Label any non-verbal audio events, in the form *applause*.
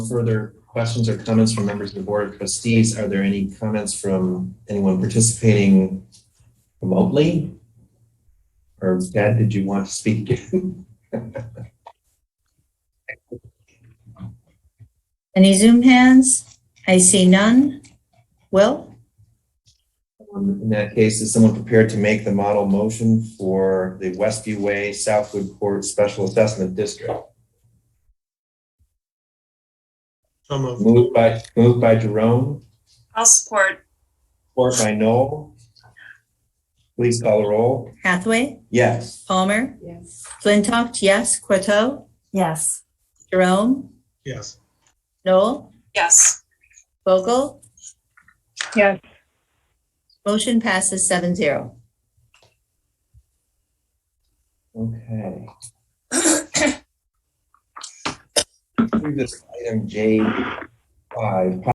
Further questions or comments from members of the Board of Trustees? Are there any comments from anyone participating remotely? Or Dad, did you want to speak? Any Zoom hands? I see none. Will? Um, In that case, is someone prepared to make the model motion for the Westview Way Southwood Court Special Assessment District? So moved. Moved by, moved by Jerome, I'll support. support by Noel. Please call the roll. Hathaway? Yes. Palmer? Yes. Flintoff? Yes. Corto? Yes. Jerome? Yes. Noel? Yes. Vogel? Yes. Motion passes seven zero. Okay. *coughs* Through this item J five,